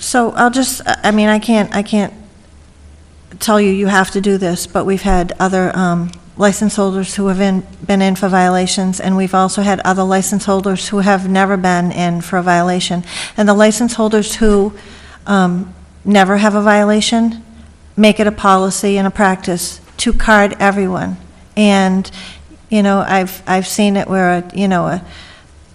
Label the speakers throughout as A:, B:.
A: So I'll just, I I mean, I can't, I can't tell you, you have to do this, but we've had other um, license holders who have in- been in for violations, and we've also had other license holders who have never been in for a violation. And the license holders who um, never have a violation, make it a policy and a practice to card everyone. And, you know, I've, I've seen it where, you know, a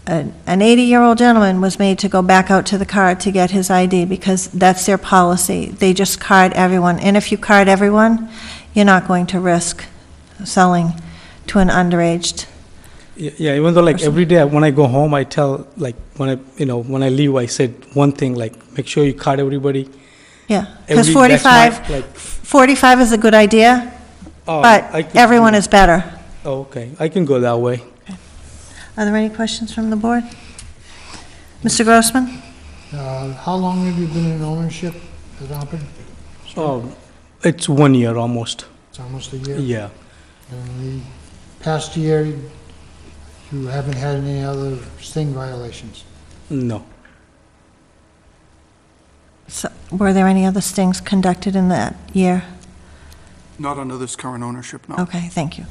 A: an 80-year-old gentleman was made to go back out to the car to get his ID because that's their policy. They just card everyone. And if you card everyone, you're not going to risk selling to an underaged.
B: Y- Yeah, even though like every day I- when I go home, I tell like when I you know when I leave, I said one thing like make sure you card everybody.
A: Yeah. Because
B: Every- that's my,
A: 45,
B: like,
A: 45 is a good idea,
B: oh, I
A: but
B: could-
A: everyone is better.
B: Oh, okay, I can go that way.
A: Are there any questions from the board? Mr. Grossman?
C: Uh, How long have you been in ownership at Auburn?
B: Oh, it's one year almost.
C: It's almost a year.
B: Yeah.
C: And the past year, you haven't had any other sting violations?
B: No.
A: So, Were there any other stings conducted in that year?
D: Not under this current ownership, no.
A: Okay, thank you.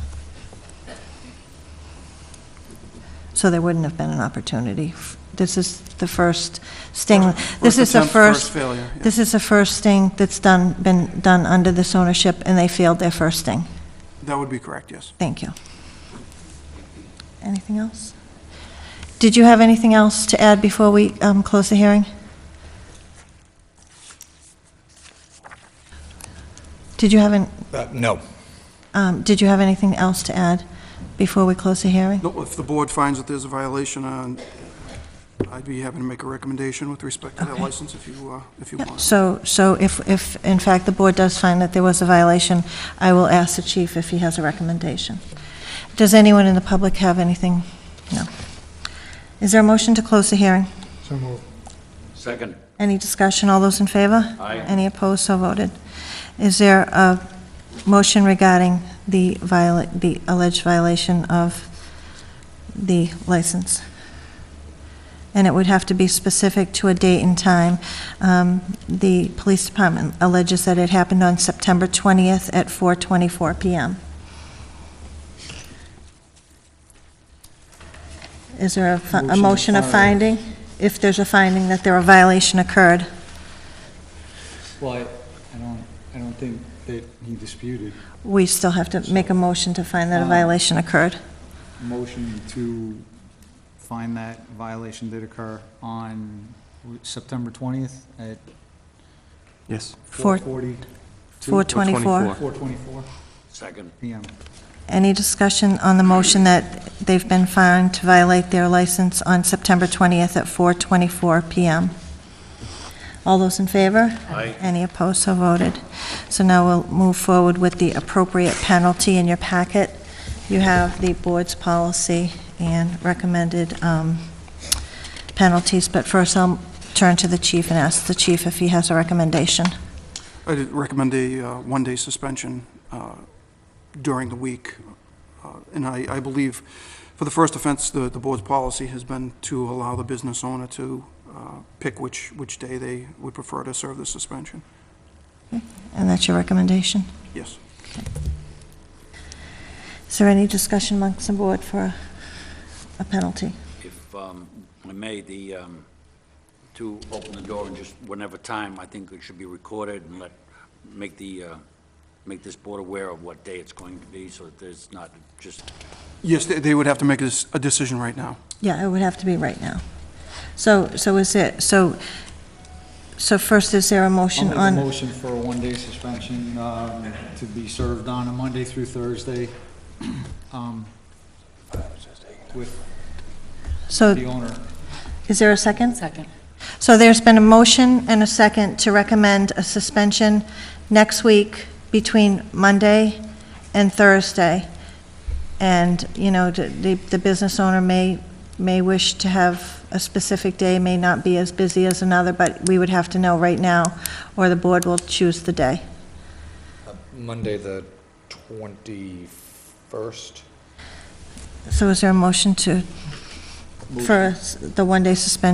A: So there wouldn't have been an opportunity. This is the first sting, this
D: First
A: is the
D: attempt,
A: first,
D: failure, yeah.
A: this is the first sting that's done, been done under this ownership, and they failed their first sting.
D: That would be correct, yes.
A: Thank you. Anything else? Did you have anything else to add before we um, close the hearing? Did you have, an-
E: Uh, No.
A: um, did you have anything else to add before we close the hearing?
D: No, If the board finds that there's a violation, uh, I'd be happy to make a recommendation with respect to that
A: Okay.
D: license if you, uh, if you
A: Yeah,
D: want.
A: So, so if, if, in fact, the board does find that there was a violation, I will ask the chief if he has a recommendation. Does anyone in the public have anything? No. Is there a motion to close the hearing?
C: So moved.
F: Second.
A: Any discussion? All those in favor?
F: Aye.
A: Any opposed? So voted. Is there a motion regarding the viola, the alleged violation of the license? And it would have to be specific to a date and time. Um, The police department alleges that it happened on September 20th at 4:24 PM. Is there a fi- a motion of finding? If there's a finding that there a violation occurred?
G: Well, I, I don't, I don't think that he disputed Uh-huh.
A: We still have to make a motion to find that a violation occurred.
G: motion to find that violation did occur on September 20th at
H: Yes.
A: Four-
G: 4:40,
A: 424.
G: 4:24
F: Second.
G: PM.
A: Any discussion on the motion that they've been found to violate their license on September 20th at 4:24 PM? All those in favor?
F: Aye.
A: Any opposed, so voted. So now we'll move forward with the appropriate penalty in your packet. You have the board's policy and recommended um, penalties, but first I'll turn to the chief and ask the chief if he has a recommendation.
D: I'd recommend a uh, one-day suspension uh, during the week. Uh, And I, I believe, for the first offense, the, the board's policy has been to allow the business owner to uh, pick which, which day they would prefer to serve the suspension.
A: And that's your recommendation?
D: Yes.
A: Is there any discussion amongst the board for a- a penalty?
F: If um, I may, the, um, to open the door and just whenever time, I think it should be recorded and let, make the, uh, make this board aware of what day it's going to be, so that there's not just
D: Yes, they, they would have to make a s- a decision right now.
A: Yeah, it would have to be right now. So, so is it, so, so first, is there a
G: I'll
A: motion
G: make a
A: on?
G: motion for a one-day suspension um, to be served on a Monday through Thursday um, with the
A: So
G: owner.
A: is there a second?
I: Second.
A: So there's been a motion and a second to recommend a suspension next week between Monday and Thursday. And, you know, the- the, the business owner may, may wish to have a specific day, may not be as busy as another, but we would have to know right now, or the board will choose the day.
E: Monday, the 21st?
A: So is there a motion to, for the one-day suspension